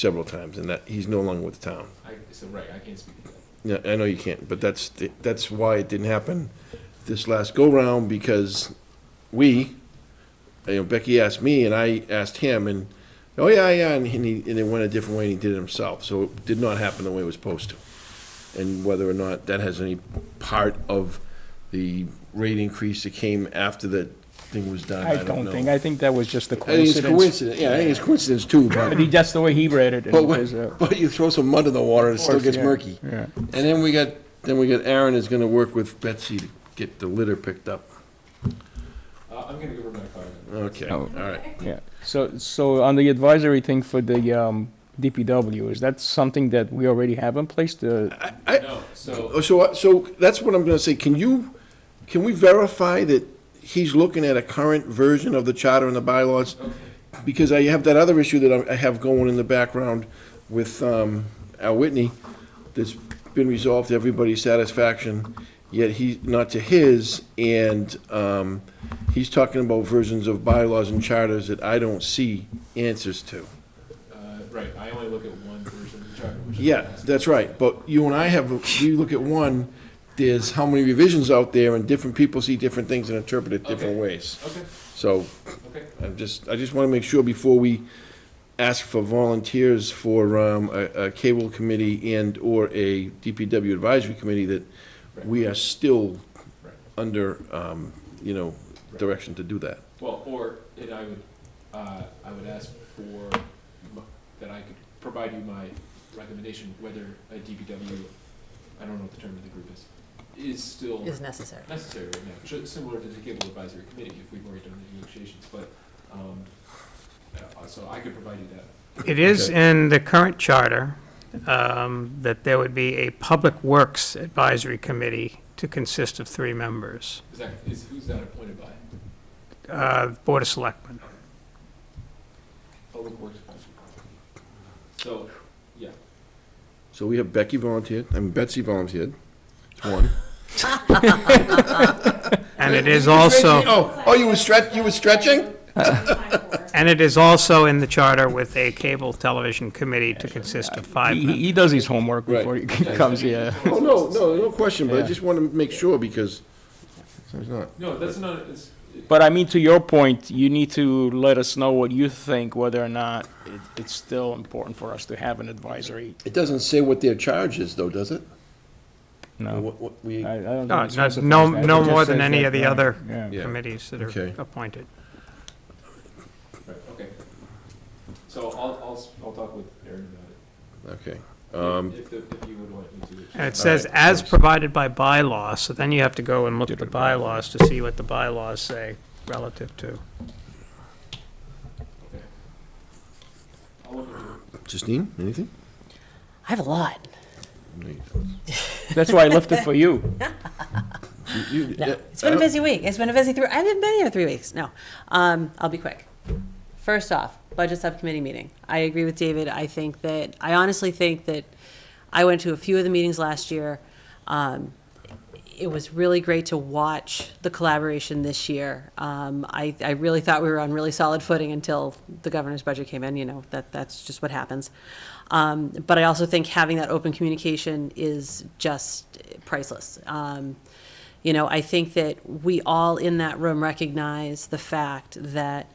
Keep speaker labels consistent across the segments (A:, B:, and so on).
A: several times, and that, he's no longer with the town.
B: I, so, right, I can't speak to that.
A: Yeah, I know you can't, but that's, the- that's why it didn't happen this last go-round, because we, you know, Becky asked me, and I asked him, and, oh, yeah, yeah, and he, and it went a different way, and he did it himself, so it did not happen the way it was supposed to. And whether or not that has any part of the rate increase that came after that thing was done,
C: I don't
A: know.
C: think, I think that was just a
A: I think it's
C: coincidence.
A: coincidence, yeah, I think it's coincidence too,
C: But he,
A: but,
C: that's the way he read it. and
A: but
C: it was,
A: when-
C: uh,
A: but you throw some mud in the water, it still
C: course,
A: gets
C: yeah,
A: murky.
C: Yeah.
A: And then we got, then we got Aaron is gonna work with Betsy to get the litter picked up.
B: Uh, I'm gonna give her my card.
A: Okay, all
C: Oh.
A: right.
C: Yeah, so, so on the advisory thing for the um, DPW, is that something that we already have in place? The,
A: I, I,
B: No, so,
A: oh, so, I- so that's what I'm gonna say. Can you, can we verify that he's looking at a current version of the charter and the bylaws?
B: okay,
A: Because I have that other issue that I- I have going in the background with, um, Al Whitney, that's been resolved to everybody's satisfaction, yet he, not to his, and, um, he's talking about versions of bylaws and charters that I don't see answers to.
B: uh, right, I only look at one version of the charter, which is.
A: Yeah, that's right, but you and I have, you look at one, there's how many revisions out there, and different people see different things and interpret it different
B: Okay.
A: ways.
B: Okay,
A: So,
B: okay,
A: I'm just, I just want to make sure before we ask for volunteers for um, a a cable committee and/or a DPW advisory committee, that we are still
B: right.
A: under, um, you know, direction to do that.
B: Well, or, and I would, uh, I would ask for, m- that I could provide you my recommendation, whether a DPW, I don't know what the term of the group is, is still
D: is necessary.
B: necessary right now, ju- similar to the cable advisory committee, if we've already done the negotiations, but, um, uh, so I could provide you that.
E: It is
A: Okay.
E: in the current charter um, that there would be a Public Works Advisory Committee to consist of three members,
B: Is that, is, who's that appointed by?
E: uh, Board of Selectmen.
B: Public Works. So, yeah,
A: So we have Becky volunteered, I mean Betsy volunteered, It's one.
E: And it is also,
A: Oh, oh, you were stretch, you were stretching?
E: and it is also in the charter with a Cable Television Committee to consist of five
C: he,
E: members.
C: he does his homework
A: Right.
C: before he comes, yeah.
A: Oh, no, no, no question, but I
C: Yeah.
A: just want to make sure because, so it's not.
B: no, that's not, it's,
C: But I mean, to your point, you need to let us know what you think, whether or not it, it's still important for us to have an advisory.
A: It doesn't say what their charge is though, does it? Or
C: No.
A: what- what we-
C: I- I don't
E: No,
C: think it
E: no-
C: specifies
E: no-
C: that. It
E: no
C: just
E: more than
C: says
E: any
C: that,
E: of the
C: yeah,
E: other
C: yeah.
A: Yeah.
E: committees that
A: Okay.
E: are appointed.
B: right, okay. So I'll, I'll, s- I'll talk with Aaron about
A: Okay.
B: it, if, the- if you would want me to.
E: And it says,
A: Alright,
E: as
A: thanks.
E: provided by bylaw, so then you have to go and look at the bylaws to see what the bylaws say relative to.
B: Okay. I'll look into it.
A: Justine, anything?
D: I have a lot.
C: That's why I left it for you.
A: You- you-
D: No,
A: uh,
D: it's been a busy week. It's been a busy three. I haven't been here three weeks. No, um, I'll be quick. First off, budget subcommittee meeting. I agree with David. I think that I honestly think that I went to a few of the meetings last year. Um, it was really great to watch the collaboration this year. Um, I, I really thought we were on really solid footing until the governor's budget came in. You know that that's just what happens. Um, but I also think having that open communication is just priceless. Um, you know, I think that we all in that room recognize the fact that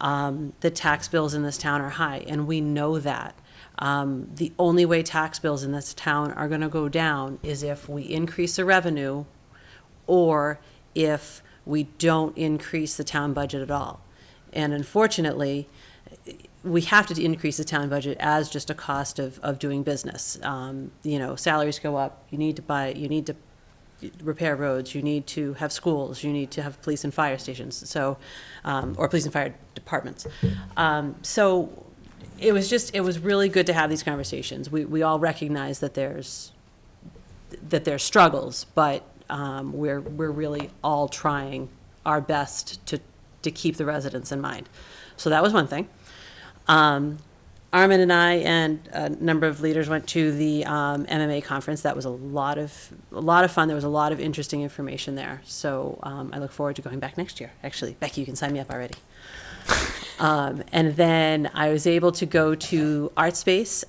D: um, the tax bills in this town are high, and we know that. Um, the only way tax bills in this town are going to go down is if we increase the revenue or if we don't increase the town budget at all. And unfortunately, we have to increase the town budget as just a cost of, of doing business. Um, you know, salaries go up, you need to buy, you need to repair roads, you need to have schools, you need to have police and fire stations, so, um, or police and fire departments. Um, so it was just, it was really good to have these conversations. We, we all recognize that there's, that there's struggles, but, um, we're, we're really all trying our best to, to keep the residents in mind. So that was one thing. Um, Armin and I and a number of leaders went to the um, MMA conference. That was a lot of a lot of fun. There was a lot of interesting information there. So um, I look forward to going back next year. Actually, Becky, you can sign me up already. Um, and then I was able to go to Art Space